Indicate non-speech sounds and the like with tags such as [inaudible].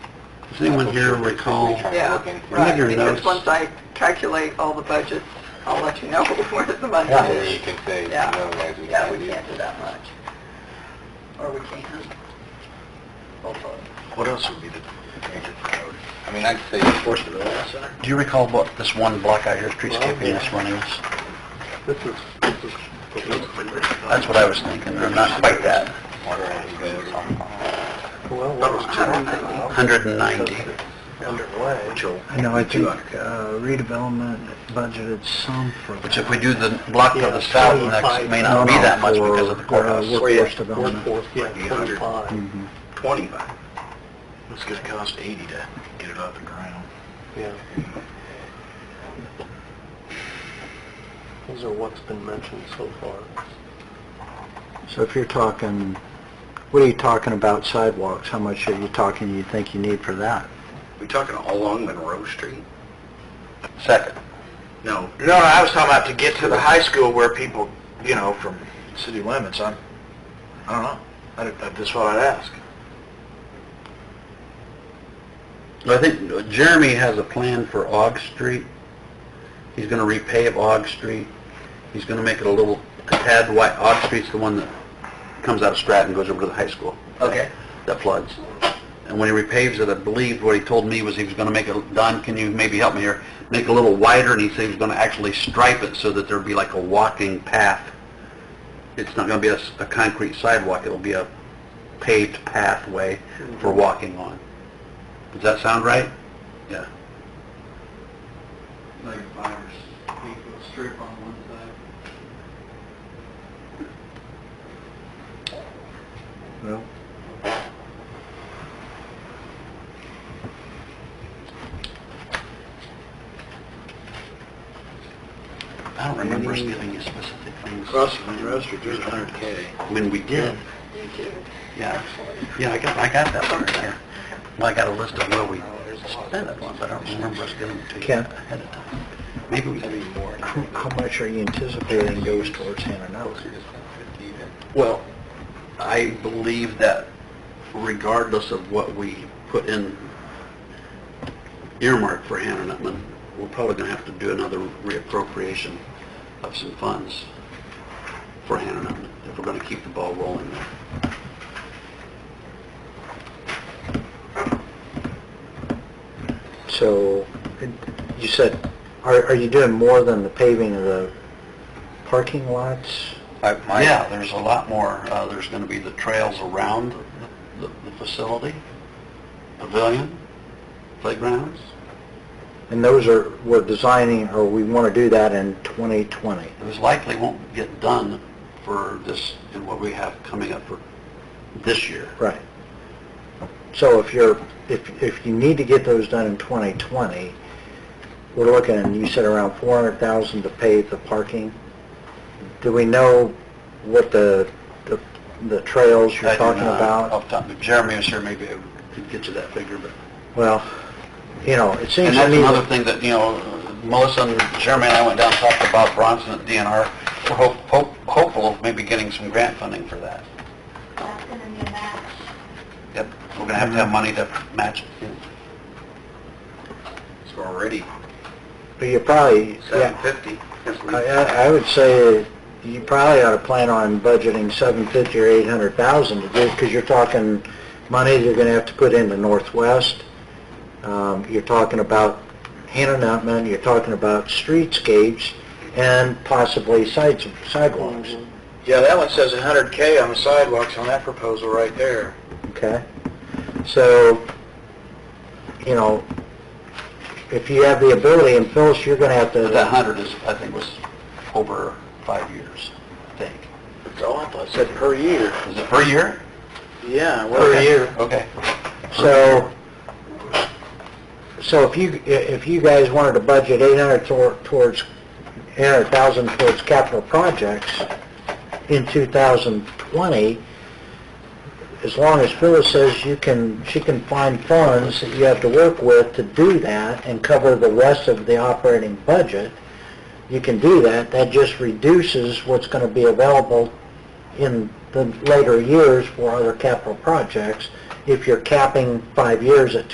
Does anyone here recall? Yeah, Look right, at your because notes. once I calculate all the budgets, I'll let you know [laughs] where the money Then you is. can say, no, Yeah. guys, we Yeah, can't we do can't do that much. Or we can. Both of them. What else would be the major priority? I mean, I'd say, Force Development Center? Do you recall what this one block out here, streetscaping this one is? This is, this is That's what I was thinking, or not quite that. what are you guys on? well, what was two 190. underway. I know, I think uh, redevelopment budgeted some for Which if we do the block to the south next, it may not be that much because of the courthouse. Workforce, Mm-hmm. yeah, twenty-five, Twenty-five. It's gonna cost eighty to get it off the ground. yeah. Those are what's been mentioned so far. So if you're talking, what are you talking about sidewalks? How much are you talking you think you need for that? We talking along Monroe Street? Second. No. No, no, I was talking about to get to the high school where people, you know, from city limits, I'm, I don't know. I don't- That's just what I'd ask. I think Jeremy has a plan for Aug Street. He's gonna repave Aug Street. He's gonna make it a little, a tad wide. Aug Street's the one that comes out of Stratton, and goes over to the high school. Okay. That floods. And when he repaves it, I believe what he told me was he was gonna make it, Don, can you maybe help me here? Make it a little wider, and he said he was gonna actually stripe it so that there'd be like a walking path. It's not gonna be a, s- a concrete sidewalk, it'll be a paved pathway for walking on. Does that sound right? Yeah. Like five or eight foot strip on one side. Well, I don't remember us giving you specific things. Street, there's a hundred K. When we did, You do. yeah. Yeah, I got, I got that part, yeah. Well, I got a list of where we spent it on, but I don't remember us giving it to you Ken? ahead of time. Maybe we did. how how much are you anticipating goes towards Hannah Well, I believe that regardless of what we put in earmark for Hannah Nutman, we're probably gonna have to do another reappropriation of some funds for Hannah Nutman, if we're gonna keep the ball rolling there. So, you said, are, are you doing more than the paving of the parking lots? Yeah, there's a lot more. Uh, There's going to be the trails around the the facility, pavilion, playgrounds. And those are, we're designing, or we want to do that in 2020. Those likely won't get done for this, and what we have coming up for this year. Right. So if you're, if, if you need to get those done in 2020, we're looking, you said around 400,000 to pave the parking. Do we know what the, the- the trails I you're do talking not- about? Off the top, if Jeremy is here, maybe I could get you that figure, but... Well, you know, it seems And to that's me, another that- thing that, you know, Melissa and Jeremy and I went down and talked to Bob Bronson at DNR. We're hope- hope- hopeful of maybe getting some grant funding for that. That's gonna be a match. Yep, we're going to have to have money to match it. So already but you probably, yeah, 750. I, I I would say you probably ought to plan on budgeting 750 or 800,000 to do, because you're talking money you're going to have to put into Northwest. Um, You're talking about Hannah Nutman, you're talking about streetscapes and possibly sides- sidewalks, Yeah, that one says a hundred K on the sidewalks on that proposal right there. okay? So, you know, if you have the ability, and Phyllis, you're going to have to... But that 100 is, I think, was over five years, I think. That's all I thought, said per year. Is it per year? Yeah, Okay. per year. Okay. So, so if you, if you guys wanted to budget 800 tor- towards, 800,000 towards capital projects in 2020, as long as Phyllis says you can, she can find funds that you have to work with to do that and cover the rest of the operating budget, you can do that. That just reduces what's going to be available in the later years for other capital projects if you're capping five years at